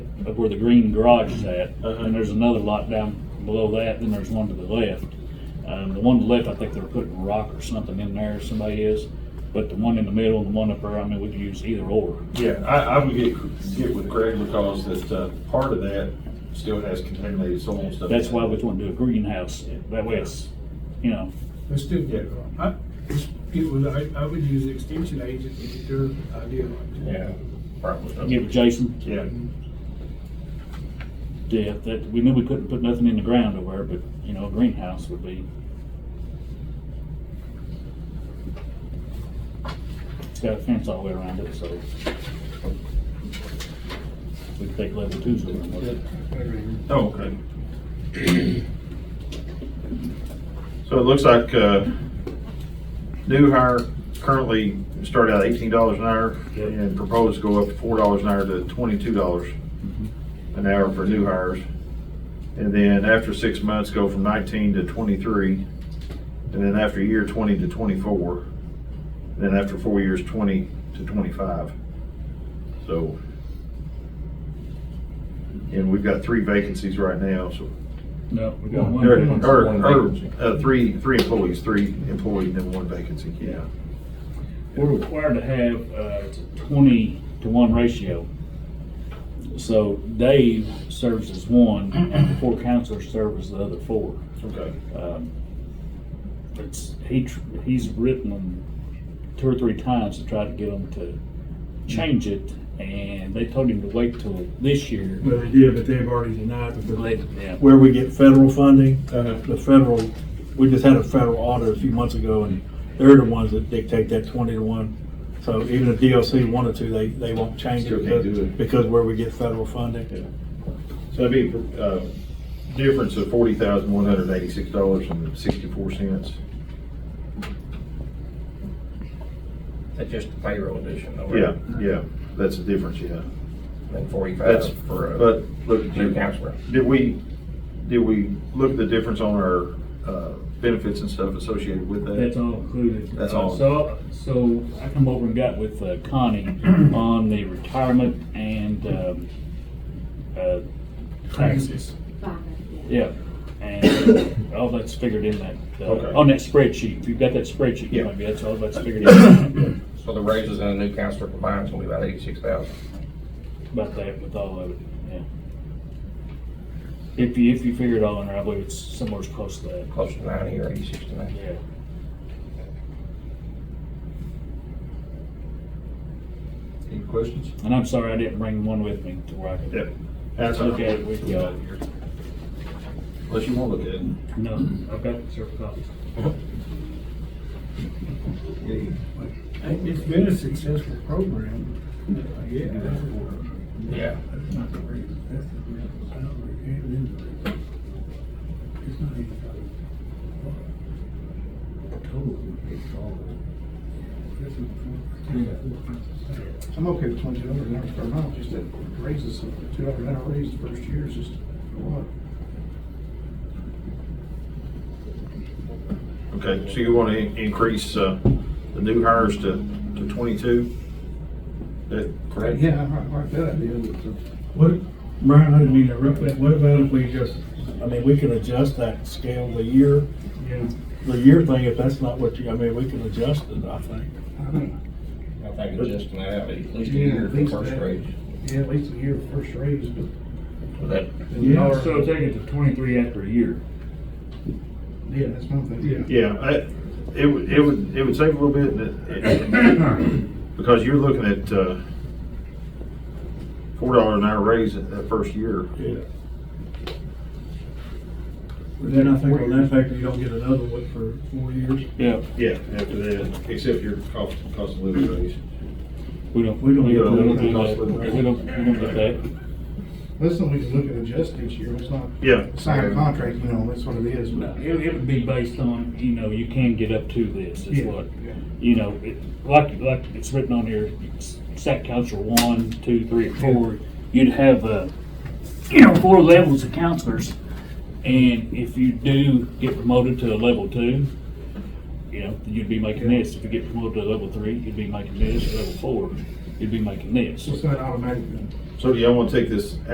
up where the green garage is at, Uh-huh. and there's another lot down below that, then there's one to the left. Um, the one to the left, I think they're putting rock or something in there, somebody is, but the one in the middle and the one up there, I mean, we could use either or. Yeah, I, I would get, get with Greg because that, uh, part of that still has contaminated soil and stuff. That's why we want to do a greenhouse, that way it's, you know, Let's do Yeah. that. I, it's- it was, I, I would use the extension agent to get their idea. on it. Yeah, probably. give Jason, Yeah, yeah, that, we knew we couldn't put nothing in the ground over there, but, you know, a greenhouse would be. It's got a fence all the way around it, so. We could take level twos over and with it. oh, okay. So it looks like, uh, new hire currently started out eighteen dollars an hour Yep. and proposed to go up four dollars an hour to twenty-two dollars an hour for new hires. And then after six months, go from nineteen to twenty-three. And then after a year, twenty to twenty-four. And then after four years, twenty to twenty-five. So. And we've got three vacancies right now, so. No, we got one. Or, vacancy. or- One or, vacancy. uh, three, three employees, three employees, and then one vacancy, yeah. We're required to have uh, twenty to one ratio. So Dave serves as one, and the four counselors serve as the other four. Okay. Um, It's, he, tr- he's written them two or three times to try to get them to change it, and they told him to wait till this year. Well, they did, but they've already denied it. They- yeah. Where we get federal funding, uh, Uh-huh. the federal, we just had a federal audit a few months ago, and they're the ones that dictate that twenty to one. So even if DLC wanted to, they, they won't change Still it can't because, do it. because where we get federal funding. So that'd be a difference of forty thousand, one hundred eighty-six dollars and sixty-four cents. That's just the payroll addition, though, Yeah, right? yeah, that's the difference, yeah. And forty-five That's, for but, a look, new did counselor. did we, did we look at the difference on our uh, benefits and stuff associated with That's that? all included. That's Uh, all. So, so I come over and got with uh, Connie on the retirement and, um, uh, taxes. Yeah, and uh, all that's figured in that, Okay. uh, on that spreadsheet. If you've got that spreadsheet, Yeah. maybe that's all that's figured in. So the raises and the new counselor combined is gonna be about eighty-six thousand. About that with all of it, yeah. If you, if you figure it all in there, I believe it's somewhere close to that, Close to ninety or eighty-six to ninety. yeah. Any questions? And I'm sorry I didn't bring one with me to where I could Yep. That's all. look at it with y'all. Unless you want to look at it. No, I've got several copies. And It's been a successful program, yeah. Yeah. That's not the rate, that's the rate of salary and invoice. It's not even about total, it's all. That's a- Yeah. I'm okay with twenty-two dollars an hour per month, just that raises, two dollars an hour raise the first year is just, what? Okay, so you want to increase uh, the new hires to, to twenty-two? That correct? Yeah, I like- like that idea, but the- What, Brian, I didn't mean to interrupt that. What about if we just, I mean, we can adjust that scale the year, Yeah. the year thing, if that's not what you, I mean, we can adjust it, I think. I think, I think adjusting that out, at least a Yeah, year at for least first that. raise. yeah, at least a year first raise, but. So that, Yeah, so take it to twenty-three after a year. Yeah, that's one thing. Yeah. Yeah, I, it would, it would, it would save a little bit, and it- because you're looking at, uh, four dollar an hour raise that, that first year. Yeah. But then I think on that factor, you don't get another one for four years. Yeah, Yeah, after that, except your cost, cost of living raise. we don't, We don't we get don't, that. we don't, we don't, we don't get that. That's something we can look at adjusting each year, it's not Yeah, sign a contract, you know, that's what it is, but. It, it would be based on, you know, you can get up to this, is Yeah, what, yeah. you know, it, like, like it's written on here, s- SAC counselor one, two, three, and four, you'd have, uh, you know, four levels of counselors. And if you do get promoted to a level two, you know, you'd be making this. If you get promoted to a level three, you'd be making this. Level four, you'd be making this. So it's not automatic then. so do y'all want to take this